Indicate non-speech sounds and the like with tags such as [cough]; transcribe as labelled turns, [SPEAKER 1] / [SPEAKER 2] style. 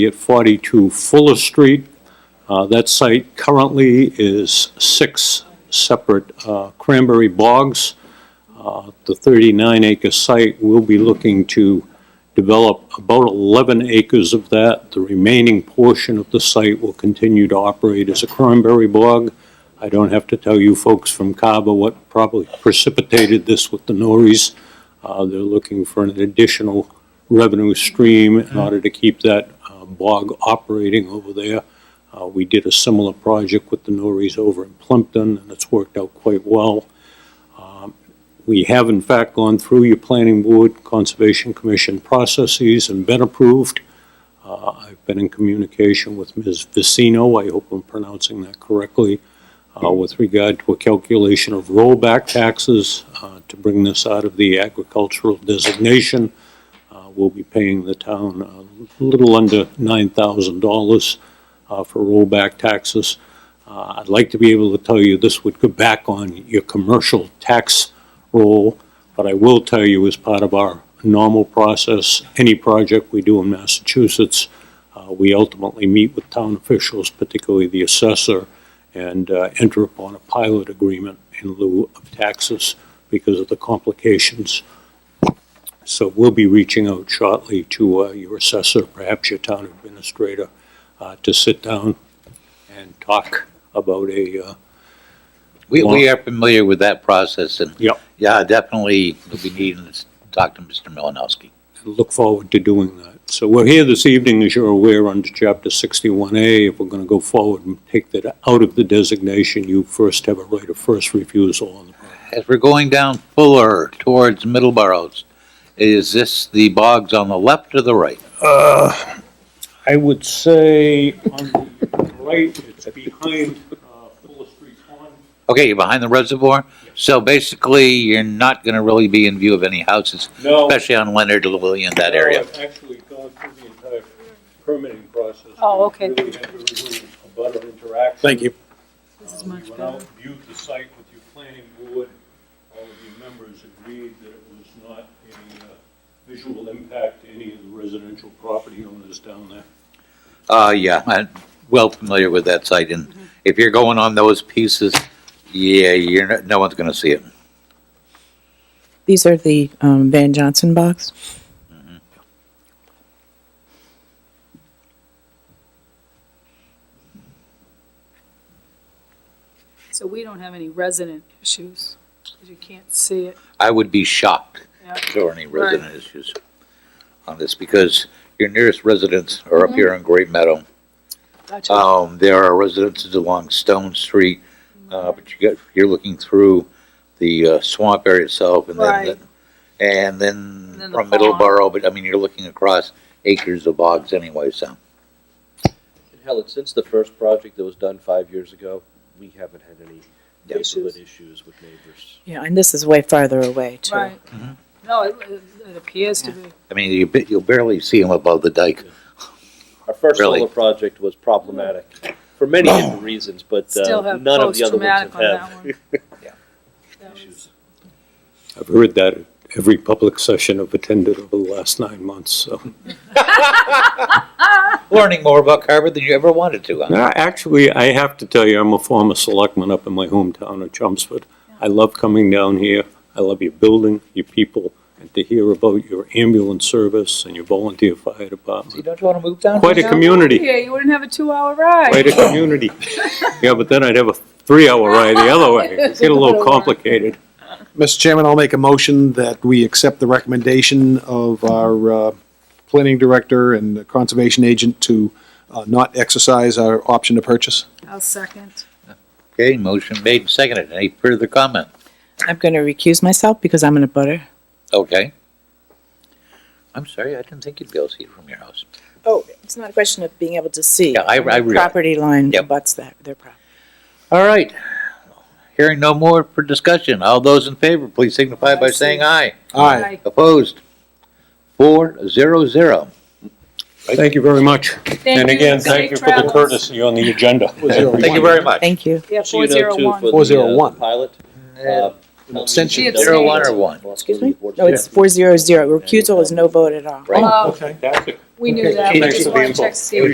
[SPEAKER 1] at 42 Fuller Street. Uh, That site currently is six separate uh, cranberry bogs. Uh, The 39-acre site will be looking to develop about 11 acres of that. The remaining portion of the site will continue to operate as a cranberry bog. I don't have to tell you folks from Cava what probably precipitated this with the Norries. Uh, They're looking for an additional revenue stream in order to keep that uh, bog operating over there. Uh, We did a similar project with the Norries over in Plimpton, and it's worked out quite well. Um, We have in fact gone through your planning board, conservation commission processes and been approved. Uh, I've been in communication with Ms. Vicino, I hope I'm pronouncing that correctly, uh, with regard to a calculation of rollback taxes uh, to bring this out of the agricultural designation. Uh, We'll be paying the town uh, a little under $9,000 uh, for rollback taxes. Uh, I'd like to be able to tell you this would go back on your commercial tax roll, but I will tell you as part of our normal process, any project we do in Massachusetts, uh, we ultimately meet with town officials, particularly the assessor, and uh, enter upon a pilot agreement in lieu of taxes because of the complications. So we'll be reaching out shortly to uh, your assessor, perhaps your town administrator, uh, to sit down and talk about a, uh,
[SPEAKER 2] We, we are familiar with that process and.
[SPEAKER 1] Yep.
[SPEAKER 2] Yeah, definitely, we'll be needing to talk to Mr. Malinowski.
[SPEAKER 1] look forward to doing that. So we're here this evening, as you're aware, under Chapter 61A. If we're going to go forward and take that out of the designation, you first have a right of first refusal on the
[SPEAKER 2] As we're going down Fuller towards Middleborough's, is this the bogs on the left or the right?
[SPEAKER 1] Uh, I would say on the right, it's behind uh, Fuller Street Pond.
[SPEAKER 2] Okay, you're behind the reservoir, so basically, you're not gonna really be in view of any houses,
[SPEAKER 1] No.
[SPEAKER 2] especially on Leonard Lilly in that
[SPEAKER 1] no,
[SPEAKER 2] area.
[SPEAKER 1] I've Actually gone through the entire permitting process.
[SPEAKER 3] Oh, okay.
[SPEAKER 1] We Really had to remove a butter interaction.
[SPEAKER 4] Thank you.
[SPEAKER 3] This is
[SPEAKER 1] Uh, we
[SPEAKER 3] much
[SPEAKER 1] Went out,
[SPEAKER 3] better.
[SPEAKER 1] viewed the site with your planning board, all of your members agreed that it was not a uh, visual impact to any of the residential property owners down there.
[SPEAKER 2] Uh, yeah, I'm well familiar with that site, and if you're going on those pieces, yeah, you're, not- no one's gonna see it.
[SPEAKER 5] These are the um, Van Johnson box.
[SPEAKER 3] So we don't have any resident issues, 'cause you can't see it.
[SPEAKER 2] I would be shocked
[SPEAKER 3] Yeah.
[SPEAKER 2] if there were any resident issues on this, because your nearest residents are up
[SPEAKER 3] Mm-hmm.
[SPEAKER 2] here on Great Meadow.
[SPEAKER 3] Gotcha.
[SPEAKER 2] Um, there are residences along Stone Street,
[SPEAKER 3] Mm-hmm.
[SPEAKER 2] uh, but you got, you're looking through the uh, swamp area itself and then,
[SPEAKER 3] Right.
[SPEAKER 2] the- and
[SPEAKER 3] And
[SPEAKER 2] then
[SPEAKER 3] then the
[SPEAKER 2] from
[SPEAKER 3] pond.
[SPEAKER 2] Middleborough, but I mean, you're looking across acres of bogs anyway, so.
[SPEAKER 6] And Helen, since the first project that was done five years ago, we haven't had any
[SPEAKER 3] Issues.
[SPEAKER 6] neighborhood issues with neighbors.
[SPEAKER 5] Yeah, and this is way farther away too.
[SPEAKER 3] Right.
[SPEAKER 2] Mhm.
[SPEAKER 3] No, it, it- it appears to be.
[SPEAKER 2] I mean, you, ba- you'll barely see them above the dike.
[SPEAKER 6] Our first
[SPEAKER 2] Really?
[SPEAKER 6] solar project was problematic for many different reasons, but
[SPEAKER 3] Still
[SPEAKER 6] uh,
[SPEAKER 3] have
[SPEAKER 6] none of the other ones
[SPEAKER 3] post-traumatic on
[SPEAKER 6] have
[SPEAKER 3] that one.
[SPEAKER 6] [laughs] had
[SPEAKER 2] Yeah.
[SPEAKER 3] That was-
[SPEAKER 6] issues.
[SPEAKER 1] I've heard that at every public session I've attended over the last nine months, so.
[SPEAKER 2] Learning more about Carver than you ever wanted to, huh?
[SPEAKER 1] No, Uh, actually, I have to tell you, I'm a former selectman up in my hometown of Chelmsford. I love coming down here. I love your building, your people, and to hear about your ambulance service and your volunteer fire
[SPEAKER 2] See,
[SPEAKER 1] department.
[SPEAKER 2] don't you wanna move down?
[SPEAKER 1] Quite a community,
[SPEAKER 3] Yeah, you wouldn't have a two-hour ride.
[SPEAKER 1] quite a community.
[SPEAKER 3] [laughs]
[SPEAKER 1] Yeah, but then I'd have a three-hour ride the other
[SPEAKER 3] [laughs]
[SPEAKER 1] way. It'd get a little complicated.
[SPEAKER 4] Mr. Chairman, I'll make a motion that we accept the recommendation of our uh, planning director and the conservation agent to uh, not exercise our option to purchase.
[SPEAKER 3] I'll second.
[SPEAKER 2] Okay, motion made and seconded. Any further comment?
[SPEAKER 5] I'm going to recuse myself because I'm in a butter.
[SPEAKER 2] Okay. I'm sorry, I didn't think you'd be able to see it from your house.
[SPEAKER 5] Oh, it's not a question of being able to see.
[SPEAKER 2] Yeah, I- I realize.
[SPEAKER 5] Property line
[SPEAKER 2] Yep.
[SPEAKER 5] abuts that, their property.
[SPEAKER 2] All right. Hearing no more for discussion. All those in favor, please signify by
[SPEAKER 3] I see.
[SPEAKER 2] saying aye.
[SPEAKER 4] Aye.
[SPEAKER 2] Opposed? Four zero zero.
[SPEAKER 1] Thank you very much.
[SPEAKER 3] Thank you. Safe travels.
[SPEAKER 1] on the agenda.
[SPEAKER 2] Thank you very much.
[SPEAKER 5] Thank you.
[SPEAKER 3] Yeah,
[SPEAKER 6] So
[SPEAKER 3] four
[SPEAKER 6] you know,
[SPEAKER 3] zero
[SPEAKER 6] too, for
[SPEAKER 3] one.
[SPEAKER 6] the, uh,
[SPEAKER 4] 401.
[SPEAKER 6] Pilot.
[SPEAKER 2] Uh,
[SPEAKER 4] abstention.
[SPEAKER 3] She
[SPEAKER 2] Zero
[SPEAKER 3] abstained.
[SPEAKER 2] one or one?
[SPEAKER 5] Excuse me? No, it's four zero zero. Recusal is no vote at all.
[SPEAKER 2] Right.
[SPEAKER 3] Oh,
[SPEAKER 4] Okay.
[SPEAKER 1] Fantastic.
[SPEAKER 7] We knew that, we
[SPEAKER 3] Thanks
[SPEAKER 7] just
[SPEAKER 3] for
[SPEAKER 7] wanted
[SPEAKER 3] being
[SPEAKER 7] to check
[SPEAKER 3] involved.
[SPEAKER 7] Steve.